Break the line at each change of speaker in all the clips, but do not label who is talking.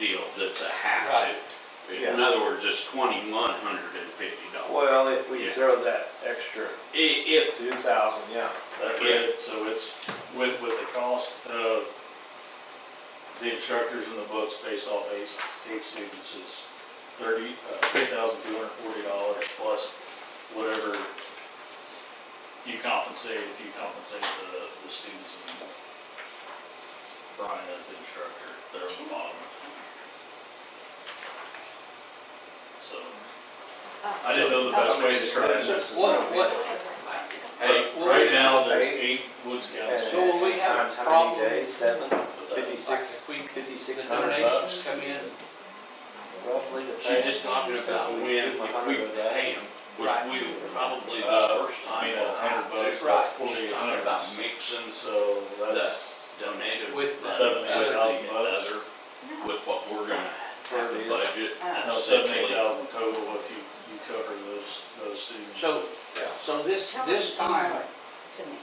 it's a half
Right.
to.
Yeah.
In other words, it's twenty-one hundred and fifty dollars.
Well, if we
Yeah.
throw that extra
I- if,
two thousand, yeah.
That rate, so it's with, with the cost of the instructors and the books based off eight, eight students is thirty, uh, three thousand two hundred forty dollars plus whatever you compensate, if you compensate the, the students and Brian as the instructor, they're on the bottom. So, I didn't know the best way to try it.
What, what,
Hey, right now, there's eight Woods County.
So will we
Times
have
how many
problem-
days? Seven,
What's that?
fifty-six,
if we, the
fifty-six hundred
donations
bucks
come in,
roughly to
she's
pay.
just talking about when, if we pay them, which
Right.
we will probably this
Uh,
first
I
time.
mean, a
will have
hundred
to.
bucks,
Right.
that's
She's
forty-eight
talking
hundred.
about mixing
So that's,
donated.
With the
money,
seven, eight
other
thousand
than
bucks.
other, With what we're gonna have to budget.
no, seven, eight
essentially.
thousand total if you, you cover those, those students.
so, so this, this time,
To me.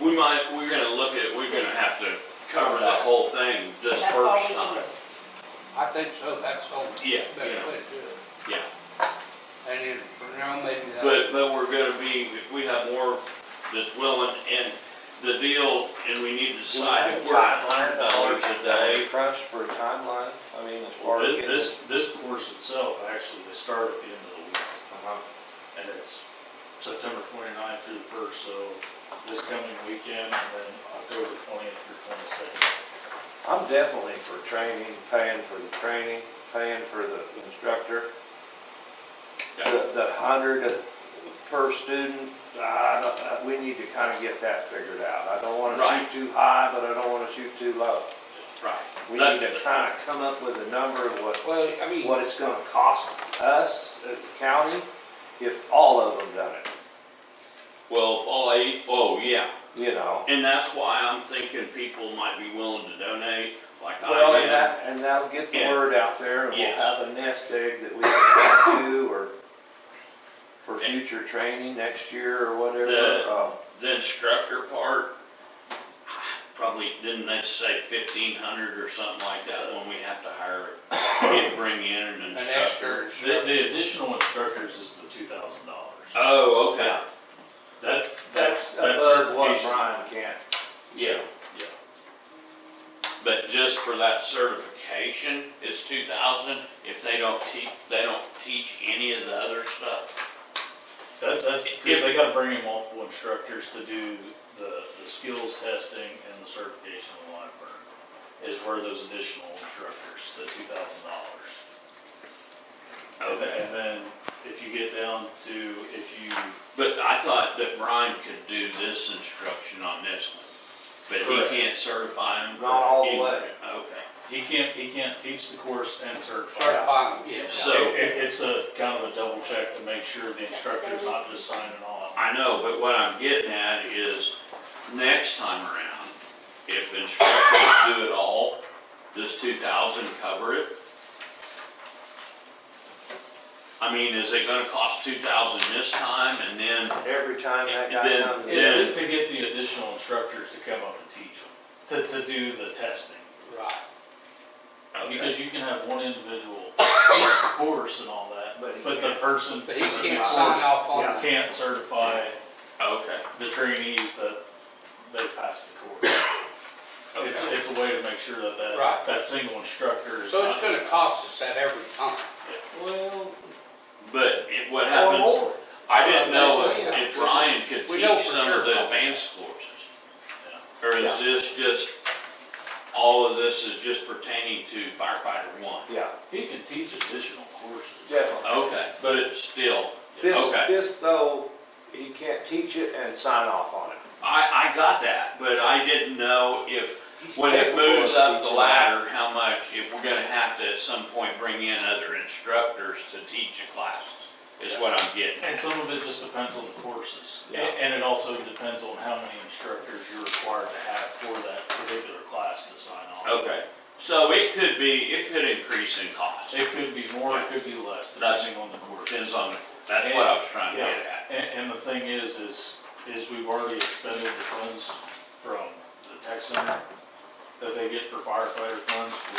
We might, we're gonna look at, we're gonna have to cover the whole thing this
That's all
first
we can
time.
I think so, that's all.
Yeah,
Best way
yeah.
to do it.
Yeah,
And then for now, maybe that.
but, but we're gonna be, if we have more that's willing and the deal, and we need to decide if we're at hundred dollars a day.
Crush for a timeline, I mean, as far as.
Thi-
getting-
This, this course itself, actually, they start at the end of the week,
Uh-huh.
and it's September twenty-ninth through the first, so this coming weekend, and then October twentieth through twenty-second.
I'm definitely for training, paying for the training, paying for the instructor.
Yeah.
The, the hundred uh, per student, I don't, uh, we need to kind of get that figured out. I don't want
Right.
to shoot too high, but I don't want to shoot too low.
Right.
We need to kind of come up with a number of what,
Well, I mean,
what it's gonna cost us as a county if all of them done it,
Well, if all eight, oh, yeah,
you know?
and that's why I'm thinking people might be willing to donate, like
Well,
I
and
am.
that, and that'll get the
Yeah.
word out there, and we'll
Yes.
have a nest egg that we can do, or for future training next year or whatever.
The-
Uh,
The instructor part, probably, didn't they say fifteen hundred or something like that when we have to hire, and bring in an
an
instructor?
extra.
The, the additional instructors is the two thousand dollars.
Oh, okay,
That,
That's
that's, that's
above what
certification.
Brian can.
yeah, yeah. But just for that certification, it's two thousand, if they don't teach, they don't teach any of the other stuff?
That, that, because they gotta bring in multiple instructors to do the, the skills testing and the certification of live burn. Is where those additional instructors, the two thousand dollars. And then if you get down to, if you,
But I thought that Brian could do this instruction on this one, but
Correct.
he can't certify him.
Not all the
He-
way.
Okay.
he can't, he can't teach the course and certify.
Certified, yes.
So-
So it, it's a kind of a double check to make sure the instructor's not just signing off.
I know, but what I'm getting at is, next time around, if instructors do it all, does two thousand cover it? I mean, is it gonna cost two thousand this time and then,
Every time that guy
Then-
comes in.
then-
To, to get the additional instructors to come up and teach them, to, to do the testing.
Right.
Because you can have one individual course and all that,
But he
but the
can't.
person.
But he
that
can't
course
sign off on it.
Can't certify
okay,
the trainees that they passed the course. It's,
okay.
it's a way to make sure that that,
Right.
that single instructor is.
So it's
not-
gonna cost us that every time.
Well,
But it- what
or
happens,
more.
I didn't know
Yeah.
if Brian could
We know
teach
for
some
sure.
of the advanced courses. Or is this just, all of this is just pertaining to firefighter one?
Yeah,
He can teach additional courses.
definitely.
Okay, but it's still,
This,
okay.
this though, he can't teach it and sign off on it.
I, I got that, but I didn't know if,
He's
when it
capable of
moves up the
teaching.
ladder, how much, if we're gonna have to at some point bring in other instructors to teach a class, is what I'm getting.
And some of it just depends on the courses. A-
Yeah.
And it also depends on how many instructors you're required to have for that particular class to sign off.
Okay, so it could be, it could increase in cost,
It could be more, it could be less,
That's-
depending on the course.
depends on, the- that's what I was trying to
Yeah,
get at.
and, and the thing is, is, is we've already expended the funds from the tech center that they get for firefighter funds.